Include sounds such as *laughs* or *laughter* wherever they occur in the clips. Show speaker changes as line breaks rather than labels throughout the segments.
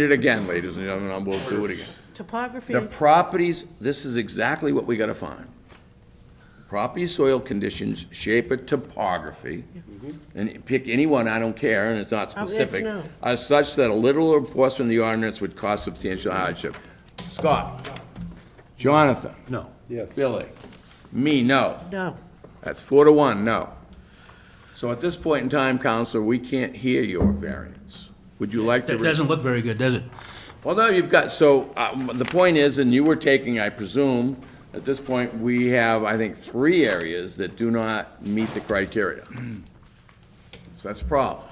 It again, ladies and gentlemen, and we'll do it again.
Topography,
The properties, this is exactly what we gotta find. Property soil conditions, shape of topography, and pick any one, I don't care, and it's not
Mm-hmm. Oh, it's
specific,
no.
are such that a little enforcement of the ordinance would cause substantial hardship. Scott? Jonathan? No. Yes. Billy? Me, no.
no.
That's four to one, no. So at this point in time, Counselor, we can't hear your variance. Would you like to?
It
re-
doesn't look very good, does it?
Although you've got, so, uh, the point is, and you were taking, I presume, at this point, we have, I think, three areas that do not meet the criteria. So that's a problem.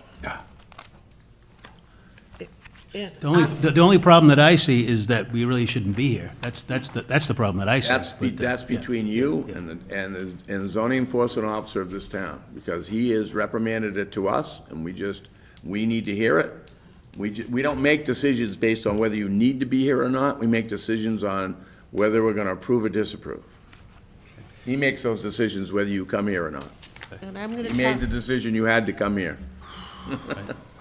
And
The only, the the only problem that I see is that we really shouldn't be here. That's, that's, the that's the problem that I see.
That's, be-
But, uh,
that's
yeah.
between you and, the and the and the zoning enforcement officer of this town, because he has reprimanded it to us, and we just, we need to hear it. We, ju- we don't make decisions based on whether you need to be here or not, we make decisions on whether we're gonna approve or disapprove. He makes those decisions whether you come here or not.
and I'm going
He made the
to talk,
decision you had to come here.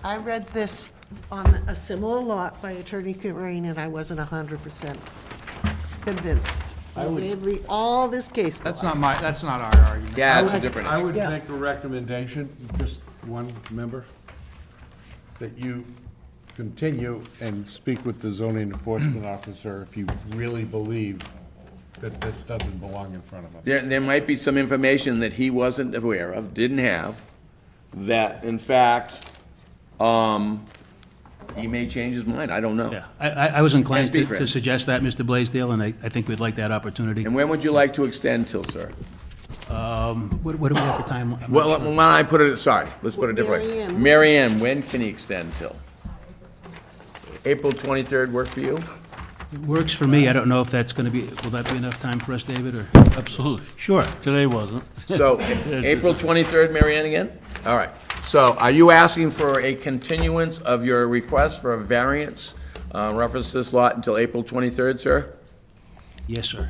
I read this on a similar lot by Attorney Corain, and I wasn't 100% convinced. He gave me all this case law.
That's not my, that's not our argument.
Yeah, it's
it's
a
a
different
I
issue.
would
Yeah.
make a recommendation, just one member, that you continue and speak with the zoning enforcement officer if you really believe that this doesn't belong in front of us.
There, there might be some information that he wasn't aware of, didn't have, that in fact, um, he may change his mind, I don't know.
Yeah, I, I I was inclined
Yes, be
to
fair.
to suggest that, Mr. Blaisdell, and I, I think we'd like that opportunity.
And when would you like to extend till, sir?
What, what do we have for time? I'm not
Well,
sure.
when I put it, sorry, let's put it
Mary
differently.
Ann.
Mary Ann, when can he extend till? April twenty-third work for you?
Works for me. I don't know if that's going to be, will that be enough time for us, David, or?
Absolutely.
Sure.
Today wasn't.
*laughs* So, April twenty-third, Mary Ann again? All right. So are you asking for a continuance of your request for a variance, uh, reference this lot until April twenty-third, sir?
Yes, sir.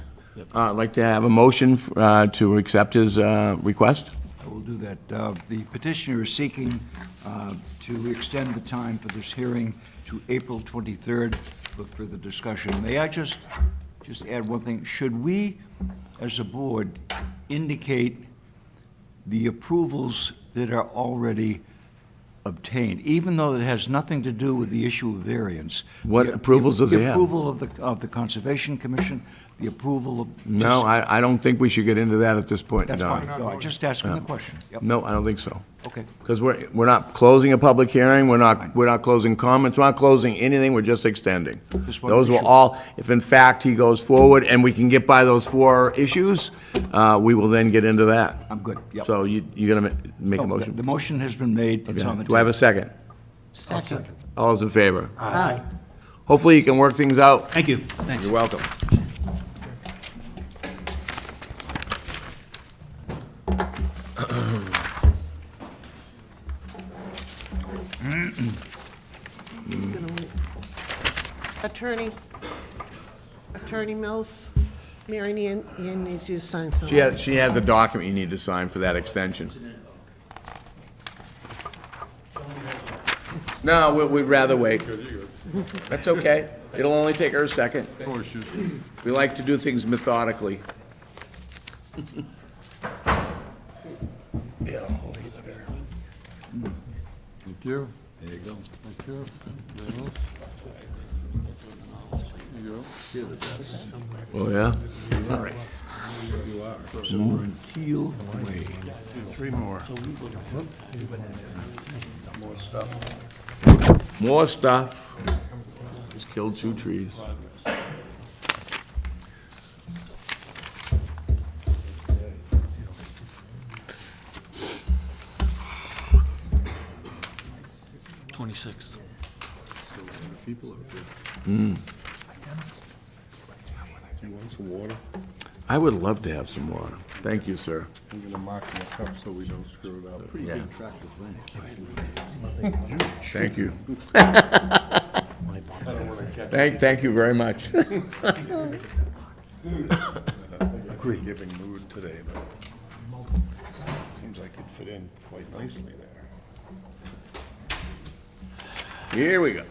Uh, I'd like to have a motion uh, to accept his uh, request.
I will do that. Uh, The petitioner is seeking uh, to extend the time for this hearing to April 23rd for further discussion. May I just, just add one thing? Should we, as a board, indicate the approvals that are already obtained, even though it has nothing to do with the issue of variance?
What
The-
approvals does
the
he have?
approval of the, of the Conservation Commission, the approval of...
No, I, I don't think we should get into that at this point.
That's
no.
fine. No, I'm just asking the question. Yep.
No, I don't think so.
Okay.
Because we're, we're not closing a public hearing, we're not, we're not closing comments, we're not closing anything, we're just extending.
Just wanted to
Those
be
were
sure.
all, if in fact he goes forward and we can get by those four issues, uh, we will then get into that.
I'm good, yep.
So you, you're gonna ma- make
No,
a
Oh, the- The
motion?
motion has been made, it's on the table.
Do I have a second?
Second.
All those in favor?
Aye.
Hopefully you can work things out.
Thank you. Thanks.
You're welcome.
Gonna wait. Attorney, Attorney Mills, Mary Ann, Ann needs you to sign something.
She has, she has a document you need to sign for that extension. No, we- we'd rather wait. That's okay. It'll only take her a second. We like to do things methodically.
Thank you. There you go. Thank you. Anything else? There you
Oh, yeah?
Keel Way.
More stuff. Just killed two trees.
Twenty-sixth.
go. Do you want some water?
I would love to have some water. Thank you, sir.
I'm gonna mark my cup so we don't screw it up.
Yeah. Thank
*laughs*
you. Thank, thank you very much. *laughs*
giving mood today, but it seems like it fit in quite nicely there.
Here we go.